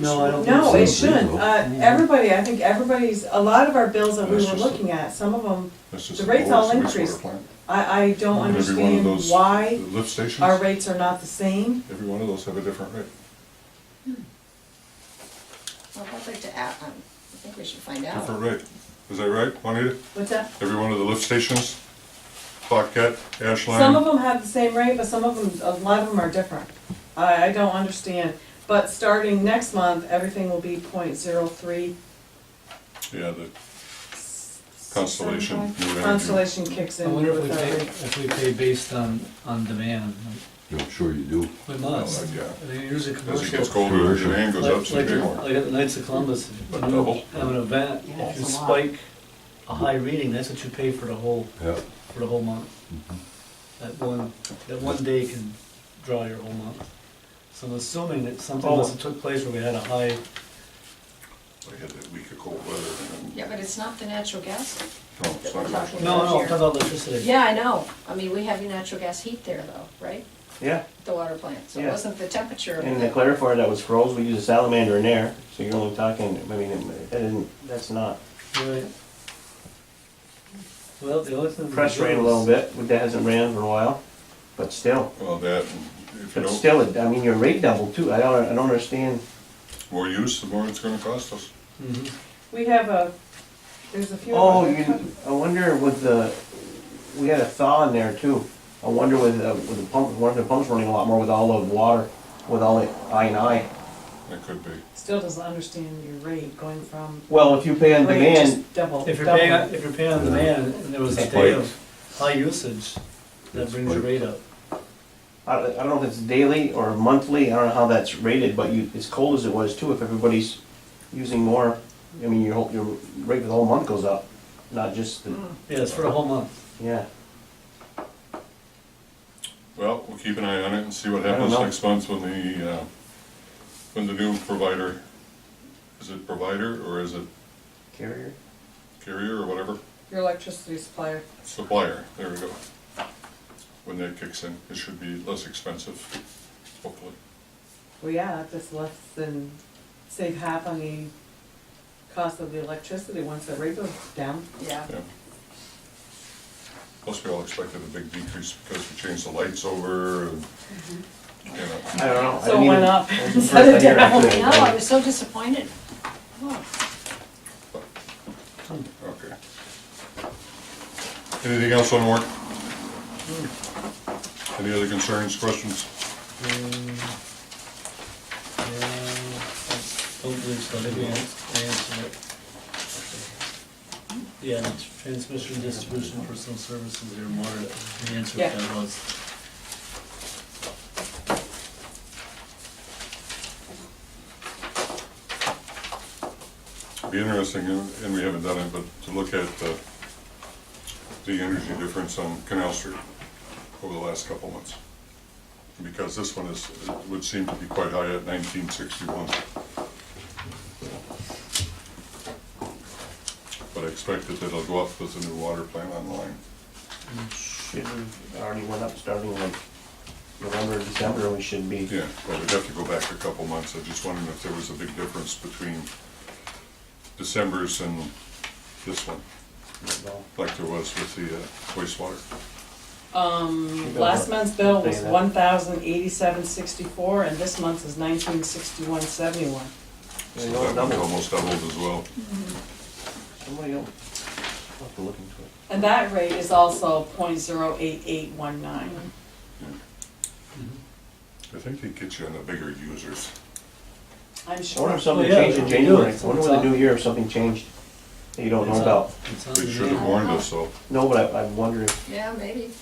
No, I don't think so. No, it shouldn't. legal. Uh, everybody, I think everybody's, a lot of our bills that we That's were just a- looking at, some of them, That's just The a rates all wastewater increased. plant. I, I don't Every one of understand those why Lift stations, our rates are not the same. every one of those have a different rate. Well, I'd like to add, um, I think we should find out. Different rate. Is that right, Juanita? What's that? Every one of the lift stations, Paquette, Ashland. Some of them have the same rate, but some of them, a lot of them are different. I, I don't understand. But starting next month, everything will be point zero three. Yeah, the Constellation, New Energy. Constellation kicks I in wonder if we with pay, our rate. if we pay based on, on demand, Yeah, I'm sure you do. we must. yeah. I mean, Oh, usually as it commercial. gets colder, the demand goes up, Like, so you like, pay more. like at the Knights of Columbus, if you But double. have an event, Yeah, if that's you a lot. spike a high reading, that's what you pay for the whole, Yeah. for the whole month. Mm-hmm. That one, that one day can draw your whole month. So I'm assuming that something Oh. must have took place where we had a high, We had that week of cold weather. Yeah, but it's not the natural gas. No, it's not much. no, no, I'm talking about electricity. Yeah, I know. I mean, we have natural gas heat there though, right? Yeah, The water plant. So it Yeah. wasn't the temperature. of and the it. clarifier that was froze, we used a salamander in there, so you're only talking, I mean, it- that isn't, that's not. Right. Well, the only thing. we Press can do rate a is- little bit, but that hasn't ran for a while, but still, Well, that, and if you but don't, still, it- I mean, your rate doubled too, I don't, I don't understand. more use, the more it's gonna cost us. Mhm. We have a, there's a few. Oh, of you, them. I wonder with the, we had a thaw in there too, I wonder with, the- with the pump, one of the pumps running a lot more with all the water, with all the I and I. That could be. Still doesn't understand your rate going from. Well, if you pay on rate just demand, Double. If you're double. paying, if you're paying on demand, and there was a day of high usage, that brings your rate up. I, I don't know if it's daily or monthly, I don't know how that's rated, but you, as cold as it was too, if everybody's using more, I mean, your whole, your rate for the whole month goes up, not just the, Yeah, it's for the whole month. yeah. Well, we'll keep an eye on it and see what I don't happens know. next month when the, uh, when the new provider, is it provider or is it Carrier? carrier or whatever? Your electricity supplier. Supplier, there we go. When that kicks in, it should be less expensive, hopefully. Well, yeah, if it's less than, save half on the cost of the electricity once the rate goes down. Yeah. Yeah. Plus, we all expected a big decrease because we changed the lights over and, you know, I don't know. I So mean, it went up that's the first instead of I hear down. actually. I know, I was so disappointed. Oh, okay. Anything else on work? Any other concerns, questions? Um, yeah, I Don't believe so, I think we ans- I answered it. Yeah, it's transmission, distribution, personal services, or more, the answer to Yeah. that was. Be interesting, and and we haven't done it, but to look at uh, the energy difference on Canal Street over the last couple months. Because this one is, would seem to be quite high at nineteen sixty-one. But I expect that it'll go up with the new water plant online. Should have already went up starting like November, December, we should be. Yeah, but we'd have to go back a couple months. I just wondered if there was a big difference between December's and this one, well, like there was with the uh, wastewater. Um, last month's bill was Pay that. one thousand eighty-seven sixty-four, and this month is nineteen sixty-one seventy-one. So they go that one double. almost doubled as well. Somebody else. I'll have to look into it. And that rate is also point zero eight eight one nine. I think they get you on the bigger users. I'm I wonder sure. if something yeah, changed in they do it. January, I wonder with It's the on. new year if something changed that you don't It's uh, know on- about. It's on They should demand. have warned us, though. No, but I, I wonder if, Yeah, maybe.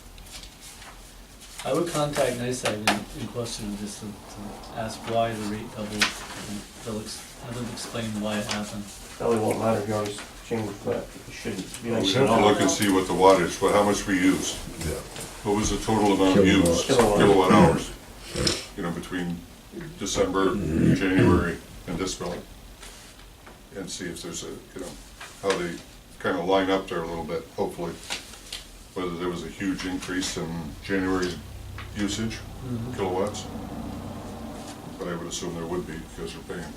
I would contact NICEAG in, in question just to, to ask why the rate doubled, and they'll ex, have them explain why it happened. probably won't matter if you always change, but it shouldn't be We like. have to look and see what the wattage, what, how much we used. What was the total amount Kilowatt. used, Kilowatt. kilowatt hours, you know, between December, January, and this billing? And see if there's a, you know, how they kind of line up there a little bit, hopefully. Whether there was a huge increase in January's Mm-hmm. usage, kilowatts. But I would assume there would be, because we're paying